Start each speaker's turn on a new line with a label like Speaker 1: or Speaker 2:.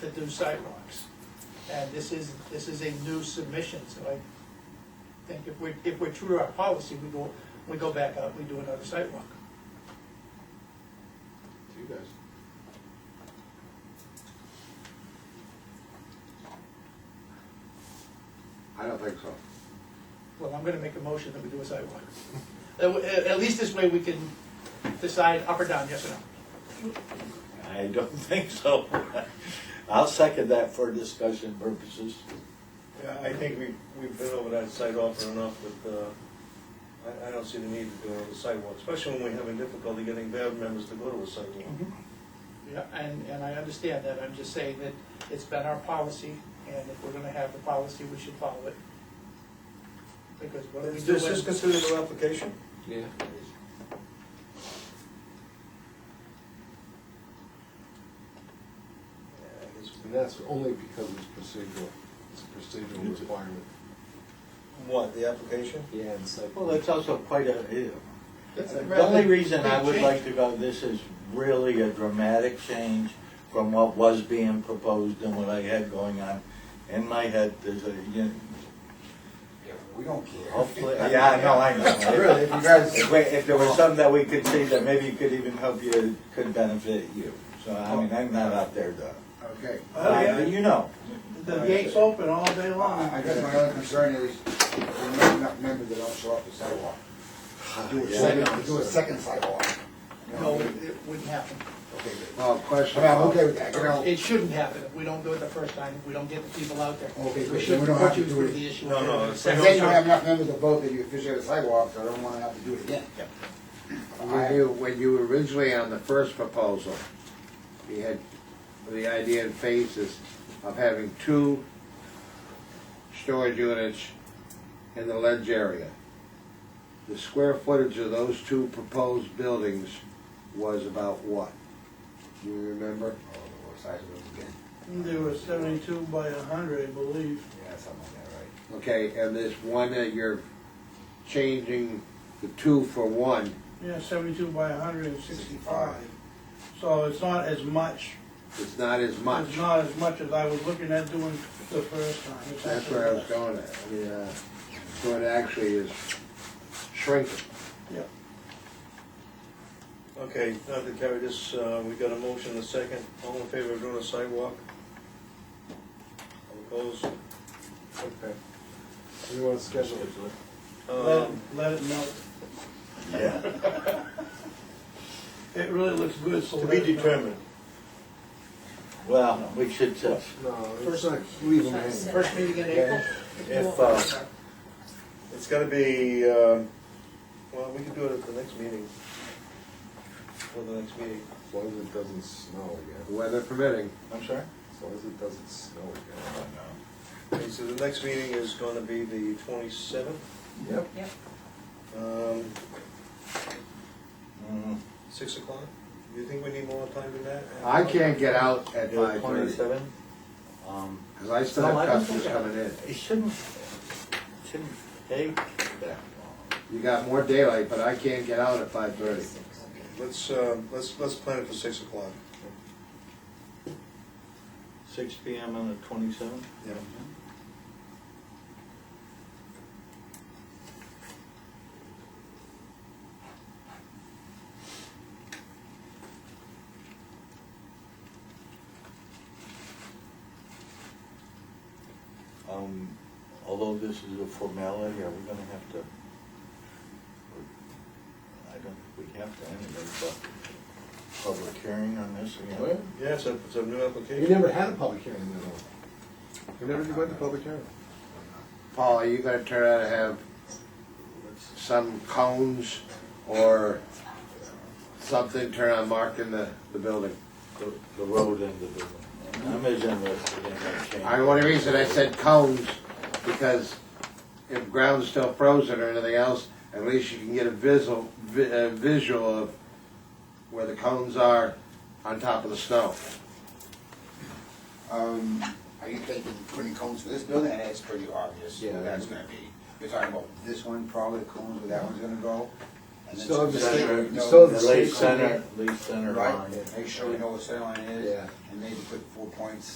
Speaker 1: to do sidewalks. And this is, this is a new submission, so I think if we're, if we're true to our policy, we go, we go back out, we do another sidewalk.
Speaker 2: to you guys. I don't think so.
Speaker 1: Well, I'm gonna make a motion that we do a sidewalk. At, at least this way we can decide up or down, yes or no.
Speaker 3: I don't think so. I'll second that for discussion purposes.
Speaker 4: Yeah, I think we, we've been over that site often enough that, uh, I, I don't see the need to do another sidewalk, especially when we're having difficulty getting band members to go to a sidewalk.
Speaker 1: Mm-hmm. Yeah, and, and I understand that, I'm just saying that it's been our policy, and if we're gonna have the policy, we should follow it. Because what do we
Speaker 4: Is
Speaker 1: do
Speaker 4: this is
Speaker 1: when,
Speaker 4: considered an application?
Speaker 2: Yeah. And that's only because it's procedural, it's a procedural requirement.
Speaker 4: What, the application?
Speaker 2: Yeah, and so.
Speaker 3: Well, that's also quite a,
Speaker 2: That's a-
Speaker 3: the only reason I would like to go, this is really a dramatic change from what was being proposed and what I had going on. In my head, there's a, you know,
Speaker 5: We don't care.
Speaker 3: hopefully, yeah, I know, I know.
Speaker 5: Really, if you guys,
Speaker 3: If we- If there was something that we could see that maybe could even help you, could benefit you. So, I mean, I'm not out there to,
Speaker 5: okay.
Speaker 1: Oh, yeah.
Speaker 3: you know.
Speaker 1: the gate's open all day long?
Speaker 5: I I guess my only concern is, we're not enough members that don't show up to sidewalk. Do a second, do a second sidewalk. You know,
Speaker 1: No,
Speaker 5: Okay,
Speaker 1: it wouldn't happen.
Speaker 5: good.
Speaker 2: Well,
Speaker 5: I
Speaker 2: question.
Speaker 5: mean, I'm okay with that, you know,
Speaker 1: It shouldn't happen, if we don't do it the first time, if we don't get the people out there.
Speaker 5: Okay, good.
Speaker 1: We
Speaker 5: Then
Speaker 1: shouldn't
Speaker 5: we don't
Speaker 1: put
Speaker 5: have to
Speaker 1: you
Speaker 5: do
Speaker 1: through
Speaker 5: it.
Speaker 1: the issue.
Speaker 4: No, no, it's-
Speaker 5: but then you don't have enough members to vote that you officiate a sidewalk, so I don't wanna have to do it again.
Speaker 6: When you, when you were originally on the first proposal, you had the idea in phases of having two storage units in the ledge area. The square footage of those two proposed buildings was about what? Do you remember?
Speaker 5: Oh, the size of it again,
Speaker 7: They were seventy-two by a hundred, I believe.
Speaker 5: yeah, something like that, right?
Speaker 6: Okay, and this one that you're changing the two for one,
Speaker 7: Yeah, seventy-two by a hundred and sixty-five. So it's not as much.
Speaker 6: it's not as much.
Speaker 7: It's not as much as I was looking at doing the first time. It's
Speaker 6: That's
Speaker 7: actually
Speaker 6: where I was
Speaker 7: less.
Speaker 6: going at, I mean, uh, so it actually is shrinking.
Speaker 4: Okay, now to carry this, uh, we got a motion, a second, all in favor of doing a sidewalk? All opposed?
Speaker 2: Okay. We want to schedule it.
Speaker 7: Let,
Speaker 4: Um,
Speaker 7: let it melt.
Speaker 3: Yeah.
Speaker 7: It really looks good, so.
Speaker 4: To
Speaker 7: let
Speaker 4: be
Speaker 7: it melt.
Speaker 4: determined.
Speaker 3: Well, we should, uh,
Speaker 2: No, it's
Speaker 1: First-
Speaker 2: not, leave them hanging.
Speaker 1: First meeting in April?
Speaker 3: if, uh,
Speaker 4: It's gonna be, um, well, we can do it at the next meeting. For the next meeting.
Speaker 2: As long as it doesn't snow again,
Speaker 6: Weather permitting,
Speaker 3: I'm sorry?
Speaker 2: as long as it doesn't snow again.
Speaker 4: Okay, so the next meeting is gonna be the twenty-seventh.
Speaker 2: Yep.
Speaker 4: Um,
Speaker 3: Mm,
Speaker 4: six o'clock? Do you think we need more time than that?
Speaker 6: I can't get out at
Speaker 3: yeah,
Speaker 6: five thirty,
Speaker 3: Twenty-seven? Um,
Speaker 6: because I still
Speaker 3: No, I
Speaker 6: have
Speaker 3: don't
Speaker 6: customers
Speaker 3: think I-
Speaker 6: coming in.
Speaker 3: it shouldn't, shouldn't take that long.
Speaker 6: You got more daylight, but I can't get out at five thirty.
Speaker 4: Let's, uh, let's, let's plan it for six o'clock.
Speaker 3: Six P M on the twenty-seventh?
Speaker 4: Yeah.
Speaker 3: Um, although this is a formality, are we gonna have to? I don't think we have to anyway, but public hearing on this again?
Speaker 4: Yeah, it's a, it's a new
Speaker 2: You
Speaker 4: application.
Speaker 2: never had a public hearing at all. You never did went to public hearing.
Speaker 6: Paul, are you gonna turn out to have some cones or something turn on marking the, the building?
Speaker 3: The, the road and the building. I'm as interested in that change.
Speaker 6: I, the only reason I said cones, because if ground's still frozen or anything else, at least you can get a visual, vi- a visual of where the cones are on top of the snow.
Speaker 5: Um, are you thinking putting cones for this building, and it's pretty obvious
Speaker 2: Yeah.
Speaker 5: where that's gonna be. You're talking about this one, probably the cones where that one's gonna go. and then
Speaker 2: Still have the
Speaker 5: some-
Speaker 2: state-
Speaker 5: you
Speaker 2: you
Speaker 5: know,
Speaker 2: still have
Speaker 3: The
Speaker 2: the
Speaker 3: Lee
Speaker 2: state
Speaker 3: Center, Lee Center
Speaker 5: Right,
Speaker 3: line.
Speaker 5: and make sure we know what center line is,
Speaker 2: Yeah.
Speaker 5: and maybe put four points